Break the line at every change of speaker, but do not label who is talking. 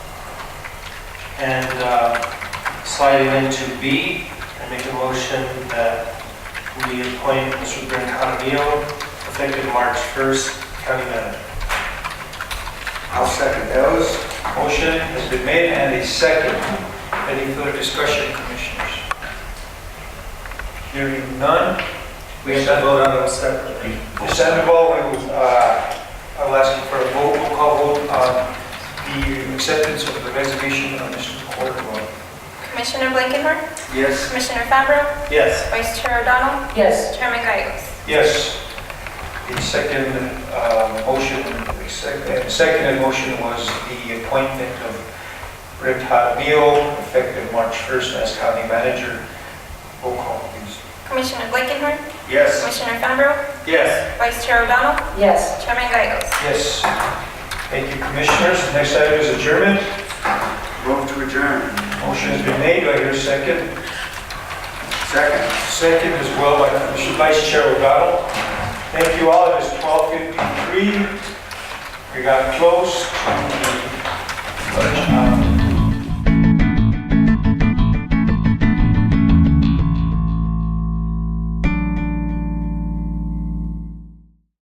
and uh, sliding into B, I make a motion that we appoint Mr. Brent Conneal, effective March 1st, county manager.
I'll second those.
Motion has been made and a second. Any further discussion, commissioners? Hearing none. We have to vote on
them separately.
the Sandoval, we will, uh, I will ask you for a vote, roll call vote on the acceptance of the resignation of Mr. Cordovan.
Commissioner Blankenhorn,
Yes.
Commissioner Fabro,
Yes.
Vice Chair O'Donnell,
yes,
Chairman Gagos.
Yes. The second uh, motion, the sec- uh, second motion was the appointment of Rick Harville, effective March 1st as county manager. Roll call, please.
Commissioner Blankenhorn,
Yes.
Commissioner Fabro,
Yes.
Vice Chair O'Donnell,
yes.
Chairman Gagos.
Yes. Thank you, commissioners. Next item is adjournment.
Move to adjourn.
Motion has been made, do I hear a second?
Second.
Second as well by Commissioner Vice Chair O'Donnell. Thank you all, it is 12:53. We got close to the uh,